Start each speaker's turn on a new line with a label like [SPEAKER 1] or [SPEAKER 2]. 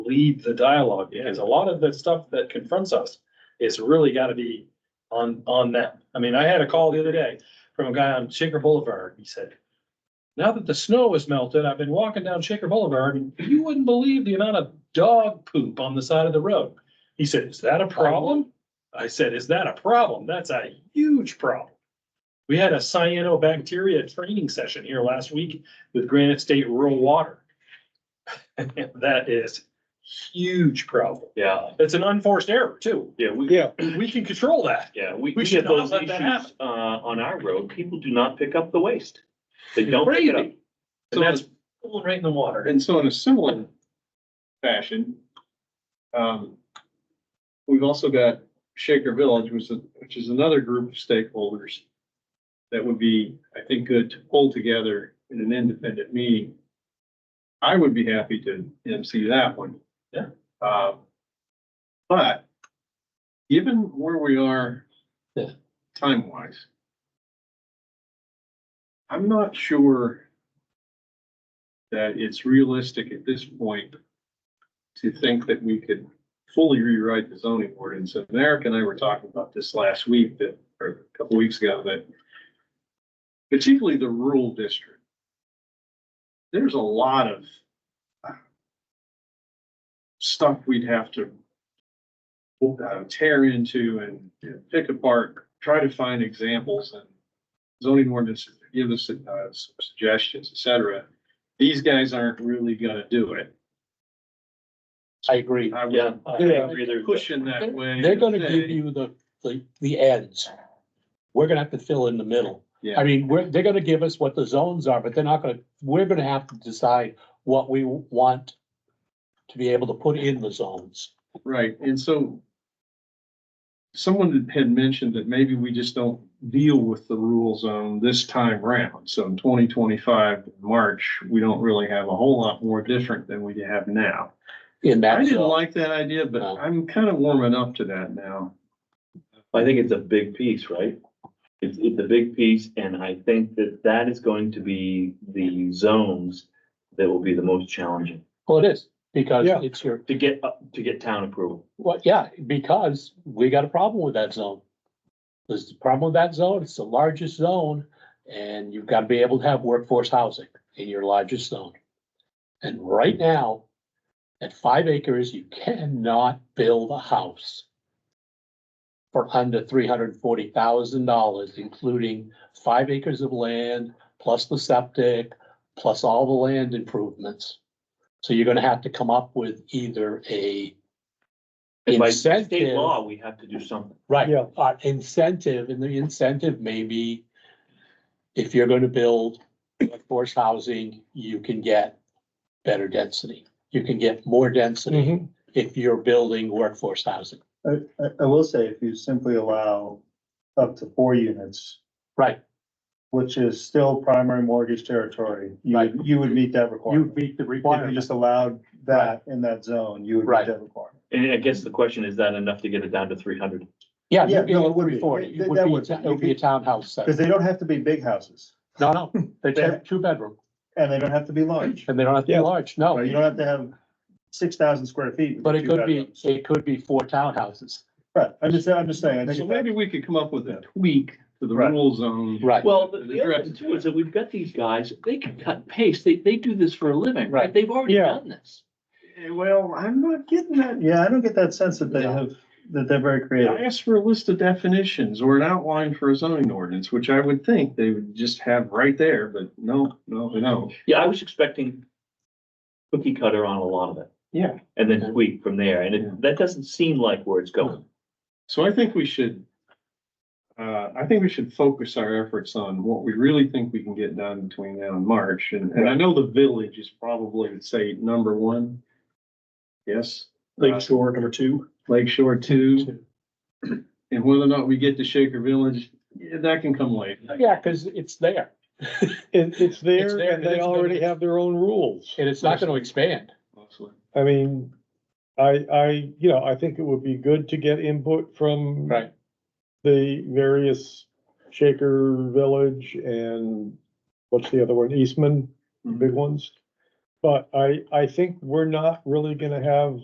[SPEAKER 1] lead the dialogue, because a lot of the stuff that confronts us is really gotta be on, on them. I mean, I had a call the other day from a guy on Shaker Boulevard, he said, now that the snow has melted, I've been walking down Shaker Boulevard, and you wouldn't believe the amount of dog poop on the side of the road. He said, is that a problem? I said, is that a problem? That's a huge problem. We had a cyanobacteria training session here last week with Granite State Rural Water. That is huge problem.
[SPEAKER 2] Yeah,
[SPEAKER 1] It's an unforced error too.
[SPEAKER 2] yeah, we,
[SPEAKER 3] Yeah,
[SPEAKER 1] We can control that.
[SPEAKER 2] yeah, we,
[SPEAKER 1] We
[SPEAKER 2] we
[SPEAKER 1] should
[SPEAKER 2] get
[SPEAKER 1] not
[SPEAKER 2] those
[SPEAKER 1] let that happen.
[SPEAKER 2] issues, uh, on our road. People do not pick up the waste. They don't pick it up.
[SPEAKER 1] Crazy. And that's right in the water.
[SPEAKER 4] And so in a similar fashion, um, we've also got Shaker Village, which is, which is another group of stakeholders that would be, I think, good to pull together in an independent meeting. I would be happy to MC that one.
[SPEAKER 1] Yeah.
[SPEAKER 4] Uh, but given where we are
[SPEAKER 1] Yeah.
[SPEAKER 4] time-wise, I'm not sure that it's realistic at this point to think that we could fully rewrite the zoning ordinance. And Eric and I were talking about this last week, that, or a couple weeks ago, that particularly the rural district, there's a lot of uh, stuff we'd have to uh, tear into and you know, pick apart, try to find examples and zoning ordinances, that give us uh, some suggestions, et cetera these guys aren't really gonna do it.
[SPEAKER 3] I agree.
[SPEAKER 4] I
[SPEAKER 2] Yeah,
[SPEAKER 4] was
[SPEAKER 1] Uh,
[SPEAKER 2] I
[SPEAKER 3] Yeah.
[SPEAKER 2] agree there.
[SPEAKER 4] pushing that way.
[SPEAKER 3] They're gonna give
[SPEAKER 4] today.
[SPEAKER 3] you the, the, the ends. We're gonna have to fill in the middle. I
[SPEAKER 4] Yeah,
[SPEAKER 3] mean, we're, they're gonna give us what the zones are, but they're not gonna, we're gonna have to decide what we want to be able to put in the zones.
[SPEAKER 4] right, and so someone had mentioned that maybe we just don't deal with the rule zone this time round. So in twenty twenty-five, March, we don't really have a whole lot more different than we have now.
[SPEAKER 3] In
[SPEAKER 4] I
[SPEAKER 3] that
[SPEAKER 4] didn't
[SPEAKER 3] zone,
[SPEAKER 4] like that idea, but
[SPEAKER 3] No.
[SPEAKER 4] I'm kind of warming up to that now.
[SPEAKER 2] I think it's a big piece, right? It's, it's a big piece, and I think that that is going to be the zones that will be the most challenging
[SPEAKER 3] well, it is, because
[SPEAKER 4] Yeah.
[SPEAKER 3] it's your,
[SPEAKER 2] to get, up to get town approval.
[SPEAKER 3] well, yeah, because we got a problem with that zone. There's a problem with that zone, it's the largest zone, and you've gotta be able to have workforce housing in your largest zone. And right now, at five acres, you cannot build a house for under three hundred and forty thousand dollars, including five acres of land, plus the septic, plus all the land improvements. So you're gonna have to come up with either a
[SPEAKER 2] And by state
[SPEAKER 3] Incentive.
[SPEAKER 2] law, we have to do something.
[SPEAKER 3] Right, uh, incentive, and the incentive may be if you're gonna build workforce housing, you can get better density. You can get more density if you're building workforce housing.
[SPEAKER 5] I, I, I will say, if you simply allow up to four units,
[SPEAKER 3] Right,
[SPEAKER 5] which is still primary mortgage territory, you,
[SPEAKER 3] Right.
[SPEAKER 5] would- you would meet that
[SPEAKER 3] you
[SPEAKER 5] requirement.
[SPEAKER 3] meet the
[SPEAKER 5] If you
[SPEAKER 3] requirement.
[SPEAKER 5] just allowed that in that zone, you would
[SPEAKER 3] Right.
[SPEAKER 5] meet that requirement.
[SPEAKER 2] And I guess the question, is that enough to get it down to three hundred?
[SPEAKER 3] Yeah,
[SPEAKER 5] Yeah,
[SPEAKER 3] you
[SPEAKER 5] no,
[SPEAKER 3] can
[SPEAKER 5] it would be.
[SPEAKER 3] afford it. It
[SPEAKER 5] That-
[SPEAKER 3] would
[SPEAKER 5] that
[SPEAKER 3] be,
[SPEAKER 5] would-
[SPEAKER 3] it would be a townhouse.
[SPEAKER 5] Because
[SPEAKER 3] set.
[SPEAKER 5] they don't have to be big houses
[SPEAKER 3] No, no, they're
[SPEAKER 5] They-
[SPEAKER 3] two, two bedroom,
[SPEAKER 5] and they don't have to be large.
[SPEAKER 3] and they don't have to be
[SPEAKER 5] Yeah.
[SPEAKER 3] large,
[SPEAKER 5] Right? You
[SPEAKER 3] no.
[SPEAKER 5] don't have to have six thousand square feet. with
[SPEAKER 3] But it
[SPEAKER 5] two
[SPEAKER 3] could be,
[SPEAKER 5] bedrooms.
[SPEAKER 3] it could be four townhouses.
[SPEAKER 5] Right, I'm just, I'm just saying. I
[SPEAKER 4] So
[SPEAKER 5] think
[SPEAKER 4] maybe
[SPEAKER 5] that-
[SPEAKER 4] we could come up with a tweak to the
[SPEAKER 5] Right.
[SPEAKER 4] rule zone.
[SPEAKER 3] Right.
[SPEAKER 2] Well, the
[SPEAKER 4] that
[SPEAKER 2] the other thing
[SPEAKER 4] addresses
[SPEAKER 2] too is that we've got these guys, they can cut and paste, they, they do this for a living,
[SPEAKER 3] Right.
[SPEAKER 2] right? They've already
[SPEAKER 3] Yeah.
[SPEAKER 2] done this.
[SPEAKER 4] Eh, Well, I'm not getting that
[SPEAKER 5] Yeah, I don't get that sense that they
[SPEAKER 3] No.
[SPEAKER 5] have, that they're very
[SPEAKER 4] I
[SPEAKER 5] creative.
[SPEAKER 4] asked for a list of definitions or an outline for a zoning ordinance, which I would think they would just have right there, but no, no, no.
[SPEAKER 2] Yeah, I was expecting cookie cutter on a lot of it,
[SPEAKER 4] Yeah.
[SPEAKER 2] and
[SPEAKER 3] Yeah.
[SPEAKER 2] then tweak from there, and
[SPEAKER 4] Yeah.
[SPEAKER 2] it, that doesn't seem like where it's going.
[SPEAKER 4] So I think we should, uh, I think we should focus our efforts on what we really think we can get done between now and March. And, and I know the village is probably, would say, number one. Yes, Lake
[SPEAKER 1] Shore, number two.
[SPEAKER 4] Lake Shore two, and whether or not we get to Shaker Village, yeah, that can come later.
[SPEAKER 3] Yeah, because it's there.
[SPEAKER 6] It, it's
[SPEAKER 3] It's
[SPEAKER 6] there
[SPEAKER 3] there,
[SPEAKER 6] and
[SPEAKER 3] and it's
[SPEAKER 6] they
[SPEAKER 3] gonna
[SPEAKER 6] already
[SPEAKER 3] be-
[SPEAKER 6] have their own rules.
[SPEAKER 3] And it's not gonna expand.
[SPEAKER 4] Mostly.
[SPEAKER 6] I mean, I, I, you know, I think it would be good to get input from the various Shaker Village and what's the other one, Eastman, the big ones. But I, I think we're not really gonna have